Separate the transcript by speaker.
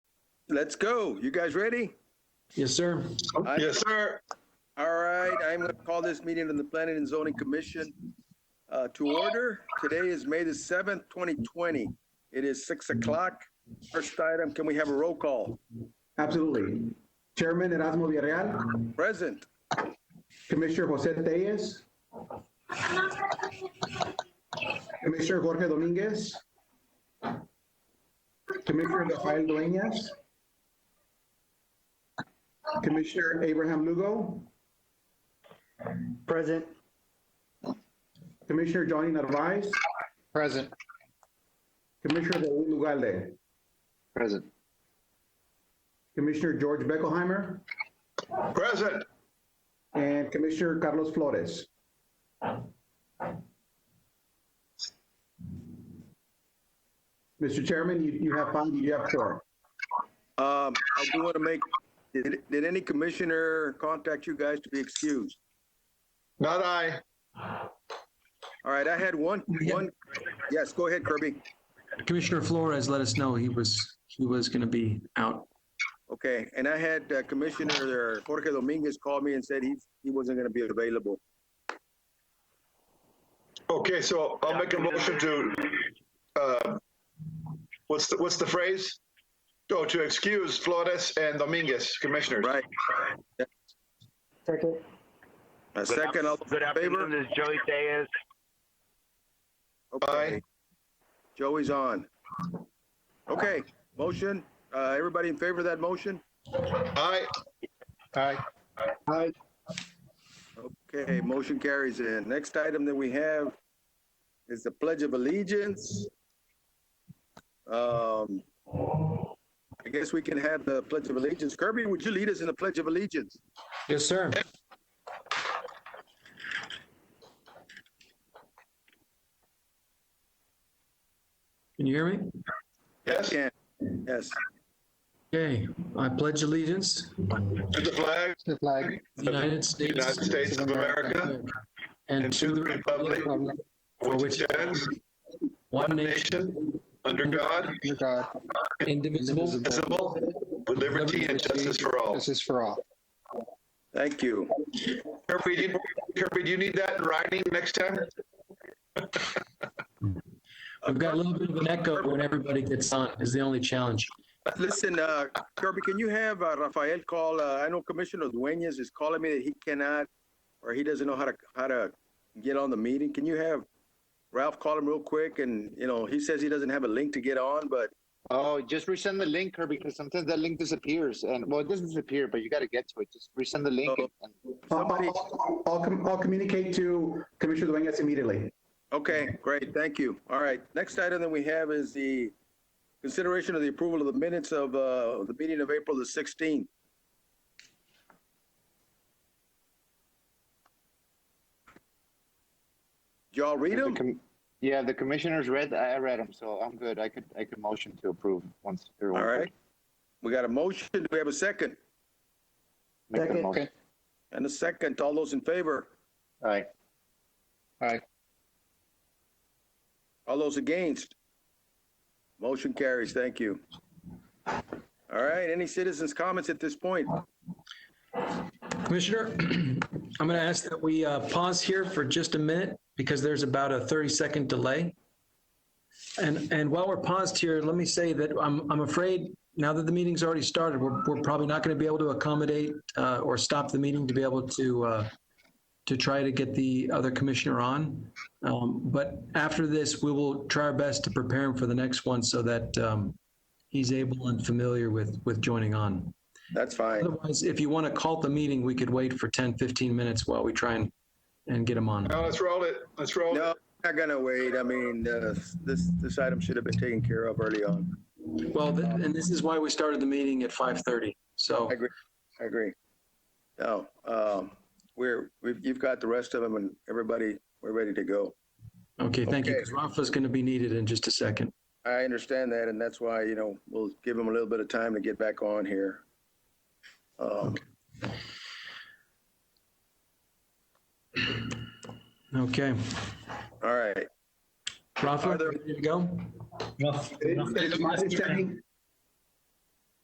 Speaker 1: Let's go. You guys ready?
Speaker 2: Yes, sir.
Speaker 1: I-
Speaker 3: Yes, sir.
Speaker 1: All right, I'm going to call this meeting of the Planning and Zoning Commission uh, to order. Today is May the 7th, 2020. It is 6 o'clock. First item, can we have a roll call?
Speaker 4: Absolutely. Chairman Erasmo Villarreal,
Speaker 1: Present.
Speaker 4: Commissioner Jose Tellez, Commissioner Jorge Dominguez, Commissioner Rafael Dueñas, Commissioner Abraham Lugo,
Speaker 5: Present.
Speaker 4: Commissioner Johnny Narvaez,
Speaker 5: Present.
Speaker 4: Commissioner Raul Ugalde,
Speaker 5: Present.
Speaker 4: Commissioner George Beckelheimer,
Speaker 3: Present.
Speaker 4: and Commissioner Carlos Flores. Mr. Chairman, you, you have found, you have four.
Speaker 1: Um, I do want to make, did did any commissioner contact you guys to be excused?
Speaker 3: Not I.
Speaker 1: All right, I had one, one, yes, go ahead Kirby.
Speaker 2: Commissioner Flores let us know he was, he was going to be out.
Speaker 1: Okay, and I had uh, Commissioner uh, Jorge Dominguez call me and said he, he wasn't going to be available.
Speaker 3: Okay, so I'll make a motion to, uh, what's the, what's the phrase? Oh, to excuse Flores and Dominguez, commissioners.
Speaker 1: Right.
Speaker 5: Second.
Speaker 1: A second, all those
Speaker 6: Good
Speaker 1: in favor?
Speaker 6: afternoon, this is Joey Diaz.
Speaker 1: Okay. Joey's on. Okay, motion, uh, everybody in favor of that motion?
Speaker 3: Aye. Aye.
Speaker 1: Okay, motion carries in. Next item that we have is the Pledge of Allegiance. Um, I guess we can have the Pledge of Allegiance. Kirby, would you lead us in the Pledge of Allegiance?
Speaker 2: Yes, sir. Can you hear me?
Speaker 3: Yes,
Speaker 1: Yeah. Yes,
Speaker 2: Okay, I pledge allegiance
Speaker 3: to the flag,
Speaker 5: The flag.
Speaker 2: to the United States.
Speaker 3: United States of America,
Speaker 2: And to the republic for
Speaker 3: which
Speaker 2: which
Speaker 3: stands
Speaker 2: one nation,
Speaker 3: nation under God,
Speaker 5: Under God.
Speaker 2: indivisible,
Speaker 3: visible, with liberty and justice for all.
Speaker 5: This is for all.
Speaker 1: thank you.
Speaker 3: Kirby, do you- Kirby, do you need that in writing next time?
Speaker 2: We've got a little bit of an echo when everybody gets on is the only challenge.
Speaker 1: Listen, uh, Kirby, can you have uh, Rafael call, uh, I know Commissioner Dueñas is calling me that he cannot, or he doesn't know how to, how to get on the meeting. Can you have Ralph call him real quick? And, you know, he says he doesn't have a link to get on, but
Speaker 5: Oh, just resend the link, Kirby, because sometimes that link disappears. And well, it doesn't disappear, but you got to get to it. Just resend the link.
Speaker 6: Oh.
Speaker 5: and- and-
Speaker 4: I'll,
Speaker 1: somebody,
Speaker 4: I'll- I'll, com- I'll communicate to Commissioner Dueñas immediately.
Speaker 1: okay, great, thank you. All right, next item that we have is the consideration of the approval of the minutes of, uh, the meeting of April the sixteenth. Y'all read
Speaker 5: the
Speaker 1: them?
Speaker 5: com- Yeah, the commissioners read, I I read them, so I'm good. I could, I could motion to approve once. they're
Speaker 1: All right. We got a motion. Do we have a second?
Speaker 5: Make the
Speaker 7: Second.
Speaker 5: motion.
Speaker 1: And a second. All those in favor?
Speaker 5: All right.
Speaker 1: All those against? Motion carries. Thank you. All right. Any citizens' comments at this point?
Speaker 2: Commissioner, I'm going to ask that we uh, pause here for just a minute because there's about a 30-second delay. And, and while we're paused here, let me say that I'm, I'm afraid now that the meeting's already started, we're, we're probably not going to be able to accommodate uh, or stop the meeting to be able to, uh, to try to get the other commissioner on. Um, But after this, we will try our best to prepare him for the next one so that um, he's able and familiar with, with joining on.
Speaker 1: That's fine.
Speaker 2: Otherwise, if you want to call the meeting, we could wait for 10, 15 minutes while we try and, and get them on.
Speaker 3: Now, let's roll it. Let's roll it.
Speaker 1: No, not gonna wait. I mean, uh, this, this item should have been taken care of early on.
Speaker 2: Well, th- and this is why we started the meeting at 5:30. So
Speaker 1: I agree. I agree. No, um, we're, we've, you've got the rest of them and everybody, we're ready to go.
Speaker 2: Okay, thank you.
Speaker 1: Okay.
Speaker 2: Because Rafa's going to be needed in just a second.
Speaker 1: I understand that, and that's why, you know, we'll give them a little bit of time to get back on here. Um,
Speaker 2: Okay.
Speaker 1: all right.
Speaker 2: Rafa,
Speaker 1: Are there-
Speaker 2: ready to go?
Speaker 4: It- It's my understanding,